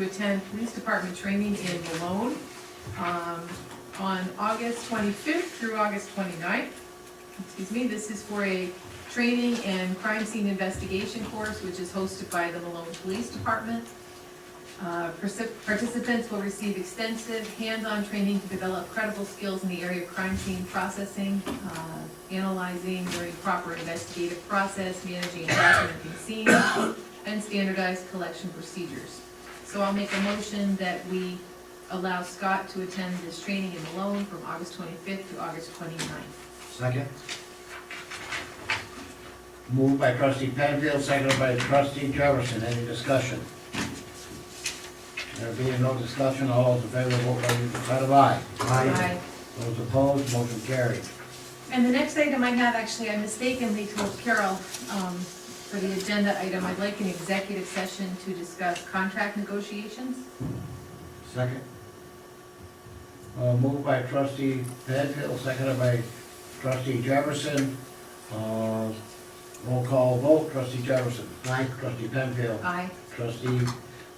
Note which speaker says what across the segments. Speaker 1: to attend police department training in Malone um, on August 25th through August 29th. Excuse me, this is for a training and crime scene investigation course, which is hosted by the Malone Police Department. Uh, particip- Participants will receive extensive hands-on training to develop credible skills in the area of crime scene processing, uh, analyzing, during proper investigative process, managing and documenting scenes, and standardized collection procedures. So I'll make a motion that we allow Scott to attend this training in Malone from August 25th to August 29th.
Speaker 2: Second. Moved by trustee Penfield, seconded by trustee Jefferson. Any discussion? There being no discussion, all those in favor, vote by using the side of aye.
Speaker 1: Aye.
Speaker 2: Those opposed, motion carried.
Speaker 1: And the next item I have, actually, I mistakenly told Carol, um, for the agenda item, I'd like an executive session to discuss contract negotiations.
Speaker 2: Second. Uh, moved by trustee Penfield, seconded by trustee Jefferson. Uh, roll call vote, trustee Jefferson. Aye. Trustee Penfield.
Speaker 1: Aye.
Speaker 2: Trustee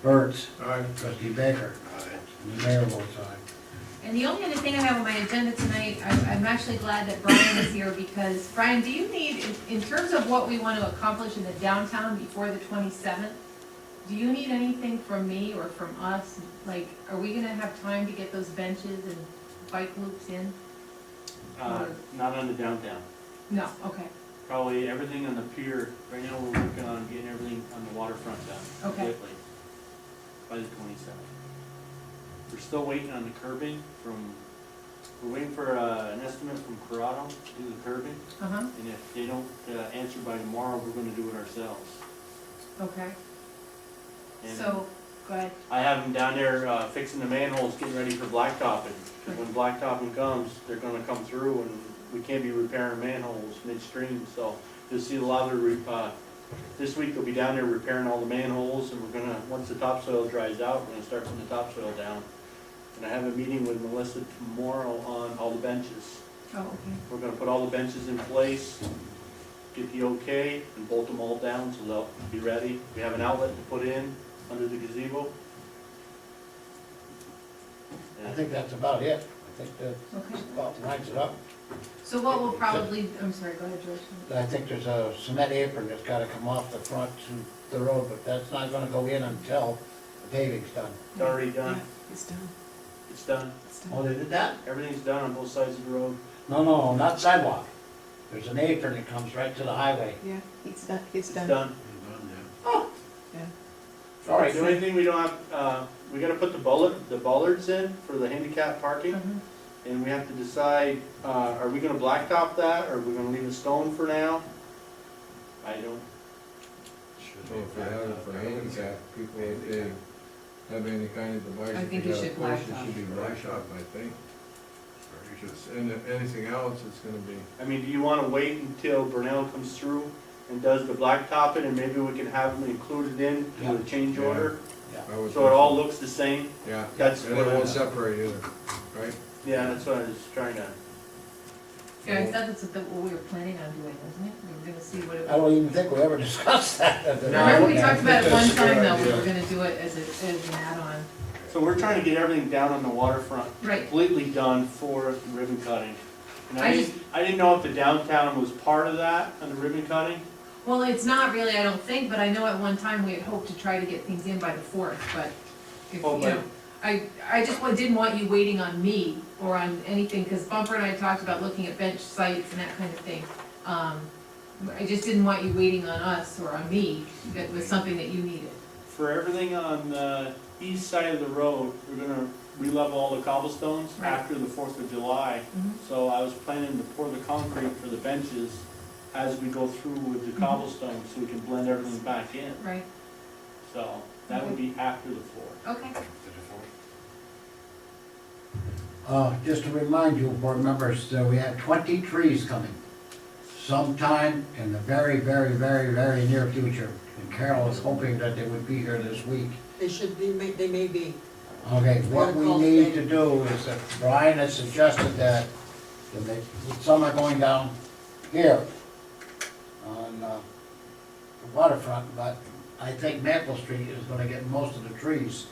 Speaker 2: Burt's. Aye. Trustee Baker. Aye. And the mayor votes aye.
Speaker 1: And the only other thing I have on my agenda tonight, I'm, I'm actually glad that Brian is here because, Brian, do you need, in, in terms of what we want to accomplish in the downtown before the twenty-seventh, do you need anything from me or from us? Like, are we gonna have time to get those benches and bike loops in?
Speaker 3: Uh, not on the downtown.
Speaker 1: No, okay,
Speaker 3: Probably everything on the pier, right now we're working on getting everything on the waterfront done.
Speaker 1: Okay.
Speaker 3: completely By the twenty-seventh. We're still waiting on the curbing from, we're waiting for, uh, an estimate from Corrado to do the curbing.
Speaker 1: uh-huh,
Speaker 3: And if they don't, uh, answer by tomorrow, we're gonna do it ourselves.
Speaker 1: okay.
Speaker 3: And
Speaker 1: So, go ahead.
Speaker 3: I have them down there, uh, fixing the manholes, getting ready for blacktopping. 'Cause when blacktopping comes, they're gonna come through and we can't be repairing manholes midstream, so you'll see a lot of the, re- uh, this week they'll be down there repairing all the manholes and we're gonna, once the topsoil dries out, we're gonna start putting the topsoil down. And I have a meeting with Melissa tomorrow on all the benches.
Speaker 1: Oh, okay.
Speaker 3: We're gonna put all the benches in place, get the okay, and bolt them all down so they'll be ready. We have an outlet to put in under the gazebo.
Speaker 2: I think that's about it. I think that
Speaker 1: Okay.
Speaker 2: about writes it up.
Speaker 1: So what will probably, I'm sorry, go ahead, George.
Speaker 2: I think there's a cement apron that's gotta come off the front to the road, but that's not gonna go in until the paving's done.
Speaker 3: It's already done,
Speaker 4: It's done,
Speaker 3: it's done,
Speaker 4: it's done.
Speaker 2: Oh, they did that?
Speaker 3: everything's done on both sides of the road.
Speaker 2: No, no, not sidewalk. There's an apron that comes right to the highway.
Speaker 4: Yeah, it's done, it's
Speaker 3: It's
Speaker 4: done.
Speaker 3: done.
Speaker 2: All right,
Speaker 3: The only thing we don't have, uh, we gotta put the bullet, the bollards in for the handicap parking.
Speaker 1: Mhm.
Speaker 3: And we have to decide, uh, are we gonna blacktop that, or are we gonna leave it stone for now? I don't,
Speaker 5: Well, If they have it for handicap, people, if they have any kind of device,
Speaker 1: I
Speaker 5: if
Speaker 1: think
Speaker 5: you
Speaker 1: you
Speaker 5: got a
Speaker 1: should
Speaker 5: push,
Speaker 1: blacktop.
Speaker 5: it should be blacktop, I think. Because- And if anything else, it's gonna be,
Speaker 3: I mean, do you wanna wait until Brunel comes through and does the blacktopping, and maybe we can have them included in to the change
Speaker 5: Yeah.
Speaker 3: order?
Speaker 5: I would.
Speaker 3: So it all looks the same?
Speaker 5: Yeah,
Speaker 3: That's
Speaker 5: and
Speaker 3: what
Speaker 5: it
Speaker 3: I-
Speaker 5: won't separate either, right?
Speaker 3: Yeah, that's what I was trying to,
Speaker 1: Yeah, I thought that's what we were planning on doing, wasn't it? We were gonna see what it.
Speaker 2: I don't even think we ever discussed that. at the-
Speaker 1: Remember, we
Speaker 2: Yeah, I
Speaker 1: talked
Speaker 2: think
Speaker 1: about it one
Speaker 2: that's a good
Speaker 1: time, though, we
Speaker 2: idea.
Speaker 1: were gonna do it as a, as an add-on.
Speaker 3: so we're trying to get everything down on the waterfront,
Speaker 1: Right.
Speaker 3: completely done for ribbon cutting. And
Speaker 1: I
Speaker 3: I didn't, I didn't know if the downtown was part of that, on the ribbon cutting.
Speaker 1: Well, it's not really, I don't think, but I know at one time we had hoped to try to get things in by the fourth, but if, you
Speaker 3: Oh, but-
Speaker 1: know. I, I just wa- didn't want you waiting on me or on anything, because Bumper and I talked about looking at bench sites and that kind of thing. Um, I just didn't want you waiting on us or on me, that was something that you needed.
Speaker 3: For everything on the east side of the road, we're gonna re-level all the cobblestones
Speaker 1: Right.
Speaker 3: after the Fourth of July. So I was planning to pour the concrete for the benches as we go through with the cobblestone, so we can blend everything back in.
Speaker 1: Right,
Speaker 3: So that would be after the fourth.
Speaker 1: okay.
Speaker 2: Uh, just to remind you, board members, that we have twenty trees coming sometime in the very, very, very, very near future. And Carol is hoping that they would be here this week.
Speaker 6: They should be, may- they may be.
Speaker 2: Okay, what we need to do is that Brian has suggested that, that they, some are going down here on, uh, the waterfront, but I think Maple Street is gonna get most of the trees